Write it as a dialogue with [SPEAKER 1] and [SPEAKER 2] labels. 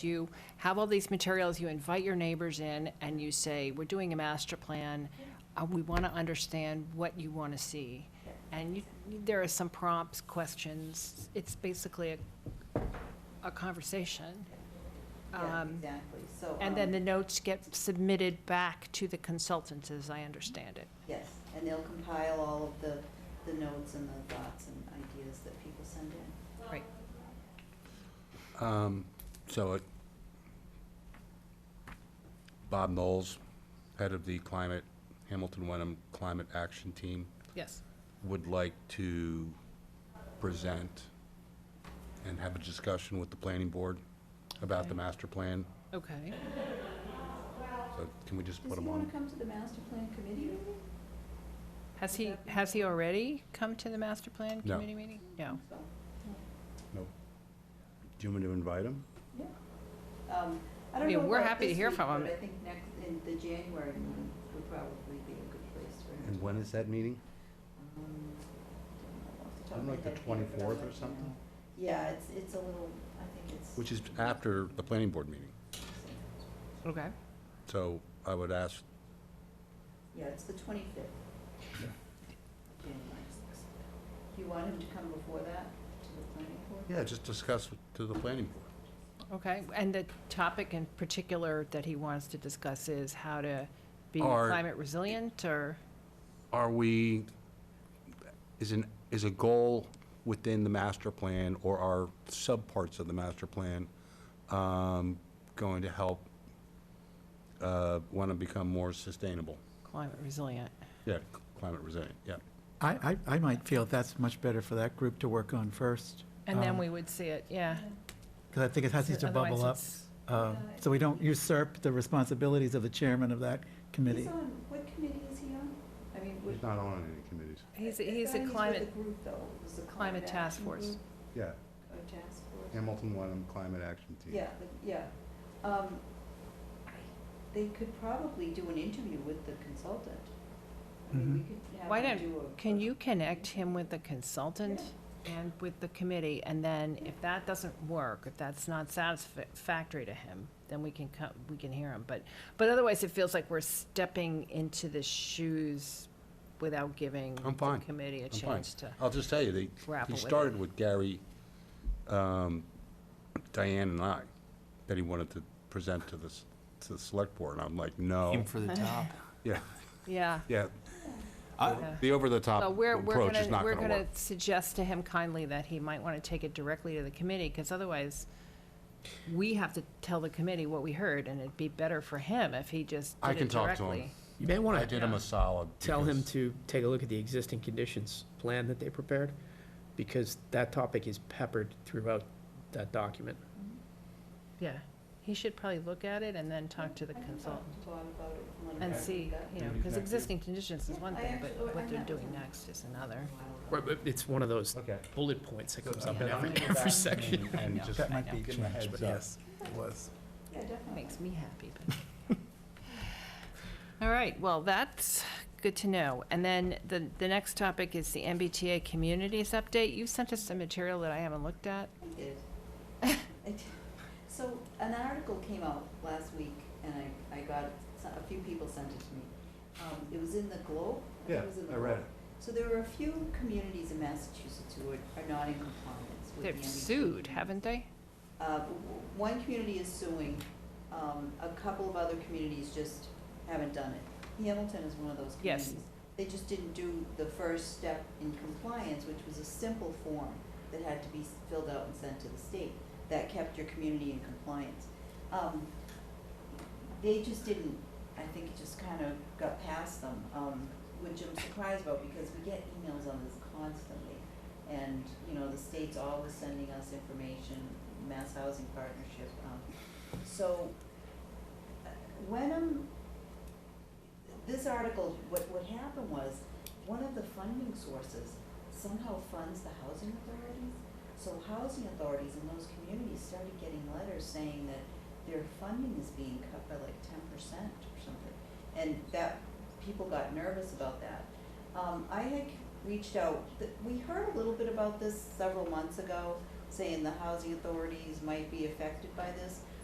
[SPEAKER 1] you have all these materials, you invite your neighbors in, and you say, we're doing a master plan, uh, we want to understand what you want to see. And you, there are some prompts, questions, it's basically a, a conversation.
[SPEAKER 2] Yeah,
[SPEAKER 1] Um,
[SPEAKER 2] exactly, so.
[SPEAKER 1] And then
[SPEAKER 2] um,
[SPEAKER 1] the notes get submitted back to the consultants, as I understand it.
[SPEAKER 2] Yes, and they'll compile all of the, the notes and the thoughts and ideas that people send in.
[SPEAKER 1] Right.
[SPEAKER 3] Um, So, it- Bob Knowles, head of the Climate, Hamilton Wenham Climate Action Team,
[SPEAKER 1] Yes.
[SPEAKER 3] would like to present and have a discussion with the planning board about the
[SPEAKER 1] Okay.
[SPEAKER 3] master plan.
[SPEAKER 1] Okay.
[SPEAKER 3] So Can we just
[SPEAKER 2] Does
[SPEAKER 3] put
[SPEAKER 2] he
[SPEAKER 3] him
[SPEAKER 2] want
[SPEAKER 3] on?
[SPEAKER 2] to come to the master plan committee meeting?
[SPEAKER 1] Has he, has he already come to the master plan
[SPEAKER 3] No.
[SPEAKER 1] committee meeting? No.
[SPEAKER 2] So,
[SPEAKER 3] No. Do you want me to invite him?
[SPEAKER 2] yeah. Um, I
[SPEAKER 1] I
[SPEAKER 2] don't
[SPEAKER 1] mean,
[SPEAKER 2] know
[SPEAKER 1] we're
[SPEAKER 2] about
[SPEAKER 1] happy to
[SPEAKER 2] this
[SPEAKER 1] hear
[SPEAKER 2] week,
[SPEAKER 1] from him.
[SPEAKER 2] But I think next, in the January one would probably be a good place for him.
[SPEAKER 3] And when is that meeting?
[SPEAKER 2] Um, don't know off top of
[SPEAKER 3] Isn't
[SPEAKER 2] my
[SPEAKER 3] like the
[SPEAKER 2] head here, but I'll
[SPEAKER 3] 24th or
[SPEAKER 2] let you
[SPEAKER 3] something?
[SPEAKER 2] know. Yeah, it's, it's a little, I think it's.
[SPEAKER 3] Which is after the planning board meeting.
[SPEAKER 1] Okay.
[SPEAKER 3] So I would ask,
[SPEAKER 2] Yeah, it's the twenty-fifth. January. Do you want him to come before that to the planning board?
[SPEAKER 3] yeah, just discuss with- to the planning board.
[SPEAKER 1] Okay, and the topic in particular that he wants to discuss is how to be
[SPEAKER 3] Are-
[SPEAKER 1] climate resilient, or,
[SPEAKER 3] are we, is an, is a goal within the master plan or are subparts of the master plan um, going to help want to become more sustainable?
[SPEAKER 1] climate resilient?
[SPEAKER 3] Yeah, climate resilient, yeah.
[SPEAKER 4] I, I, I might feel that's much better for that group to work on first.
[SPEAKER 1] And
[SPEAKER 3] Um,
[SPEAKER 1] then we would see it, yeah.
[SPEAKER 4] Because I think it has to
[SPEAKER 1] Otherwise
[SPEAKER 4] bubble up,
[SPEAKER 1] it's-
[SPEAKER 4] uh, so we don't usurp the responsibilities of the chairman of that
[SPEAKER 2] He's
[SPEAKER 4] committee.
[SPEAKER 2] on, what committee is he on? I mean, would.
[SPEAKER 3] not on any committees.
[SPEAKER 1] He's,
[SPEAKER 2] I
[SPEAKER 1] he's
[SPEAKER 2] thought
[SPEAKER 1] a
[SPEAKER 2] with
[SPEAKER 1] climate,
[SPEAKER 2] the group, though. It was the
[SPEAKER 1] climate task
[SPEAKER 2] action
[SPEAKER 1] force.
[SPEAKER 2] group,
[SPEAKER 3] Yeah,
[SPEAKER 2] or task force.
[SPEAKER 3] Hamilton Wenham Climate Action Team.
[SPEAKER 2] Yeah, but, yeah. Um, I- They could probably do an interview with the consultant. I mean, we
[SPEAKER 3] Mm-hmm.
[SPEAKER 4] Mhm.
[SPEAKER 2] could have
[SPEAKER 1] Why
[SPEAKER 2] him
[SPEAKER 1] don't-
[SPEAKER 2] do a-
[SPEAKER 1] can
[SPEAKER 2] a-
[SPEAKER 1] you connect him with the consultant and with the committee? And then if that doesn't work, if that's not satisfactory to him, then we can come, we can hear him. But, but otherwise, it feels like we're stepping into the shoes without giving
[SPEAKER 3] I'm
[SPEAKER 1] the
[SPEAKER 3] fine.
[SPEAKER 1] committee a
[SPEAKER 3] I'm fine.
[SPEAKER 1] chance to.
[SPEAKER 3] I'll just tell you, they,
[SPEAKER 1] Grapple
[SPEAKER 3] he
[SPEAKER 1] with it.
[SPEAKER 3] started with Gary, um, Diane and I, that he wanted to present to this, to the select board. And I'm like, no,
[SPEAKER 5] Aim for the top.
[SPEAKER 3] yeah,
[SPEAKER 1] Yeah.
[SPEAKER 3] yeah,
[SPEAKER 5] I-
[SPEAKER 1] Yeah.
[SPEAKER 3] The
[SPEAKER 1] So
[SPEAKER 3] over-the-top
[SPEAKER 1] we're, we're
[SPEAKER 3] approach is
[SPEAKER 1] gonna,
[SPEAKER 3] not
[SPEAKER 1] we're
[SPEAKER 3] going to
[SPEAKER 1] gonna
[SPEAKER 3] work.
[SPEAKER 1] suggest to him kindly that he might wanna take it directly to the committee, cause otherwise, we have to tell the committee what we heard, and it'd be better for him if he just
[SPEAKER 3] I
[SPEAKER 1] did
[SPEAKER 3] can
[SPEAKER 1] it
[SPEAKER 3] talk to him.
[SPEAKER 1] directly.
[SPEAKER 6] You may
[SPEAKER 3] I
[SPEAKER 6] want
[SPEAKER 3] did him a
[SPEAKER 6] to
[SPEAKER 3] solid.
[SPEAKER 6] tell him
[SPEAKER 3] because
[SPEAKER 6] to take a look at the existing conditions plan that they prepared, because that topic is peppered throughout that document.
[SPEAKER 1] Yeah, he should probably look at it and then talk to the
[SPEAKER 2] I can
[SPEAKER 1] consultant
[SPEAKER 2] talk to Bob about it and let him
[SPEAKER 1] and
[SPEAKER 2] know what
[SPEAKER 1] see,
[SPEAKER 2] we've got.
[SPEAKER 1] you know,
[SPEAKER 3] Maybe
[SPEAKER 1] cause
[SPEAKER 3] next
[SPEAKER 1] existing conditions is
[SPEAKER 2] Yeah,
[SPEAKER 1] one
[SPEAKER 2] I
[SPEAKER 1] thing,
[SPEAKER 2] actually-
[SPEAKER 1] but
[SPEAKER 2] I
[SPEAKER 1] what they're
[SPEAKER 2] met with
[SPEAKER 1] doing
[SPEAKER 2] him.
[SPEAKER 1] next is another.
[SPEAKER 6] Right, but it's one of those
[SPEAKER 3] Okay.
[SPEAKER 6] bullet points that comes
[SPEAKER 3] So
[SPEAKER 6] up in
[SPEAKER 3] I'm
[SPEAKER 6] every,
[SPEAKER 3] gonna go back
[SPEAKER 6] every section.
[SPEAKER 3] and- And
[SPEAKER 1] Yeah.
[SPEAKER 3] just
[SPEAKER 4] That might be
[SPEAKER 3] give him a
[SPEAKER 4] changed,
[SPEAKER 3] heads
[SPEAKER 4] but
[SPEAKER 3] up.
[SPEAKER 4] yes, it was.
[SPEAKER 2] Yeah, definitely.
[SPEAKER 1] Makes me happy, but. All right, well, that's good to know. And then the, the next topic is the MBTA communities update. You sent us some material that I haven't looked at.
[SPEAKER 2] I did. I did. So an article came out last week and I, I got, so- a few people sent it to me. Um, it was in the Globe. I think it was in the Globe.
[SPEAKER 3] it.
[SPEAKER 2] So there were a few communities in Massachusetts who are, are not in compliance with the E MBTA.
[SPEAKER 1] They've sued,
[SPEAKER 2] community.
[SPEAKER 1] haven't they?
[SPEAKER 2] Uh, w- one community is suing, um, a couple of other communities just haven't done it. Hamilton is one of those
[SPEAKER 1] Yes.
[SPEAKER 2] communities. They just didn't do the first step in compliance, which was a simple form that had to be s- filled out and sent to the state. That kept your community in compliance. Um, they just didn't, I think it just kind of got past them, um, which I'm surprised about because we get emails on this constantly. And, you know, the state's always sending us information, Mass Housing Partnership, um, so, uh, Wenham, this article, what, what happened was, one of the funding sources somehow funds the housing authorities. So housing authorities in those communities started getting letters saying that their funding is being cut by like ten percent or something. And that, people got nervous about that. Um, I had reached out, th- we heard a little bit about this several months ago, saying the housing authorities might be affected by this.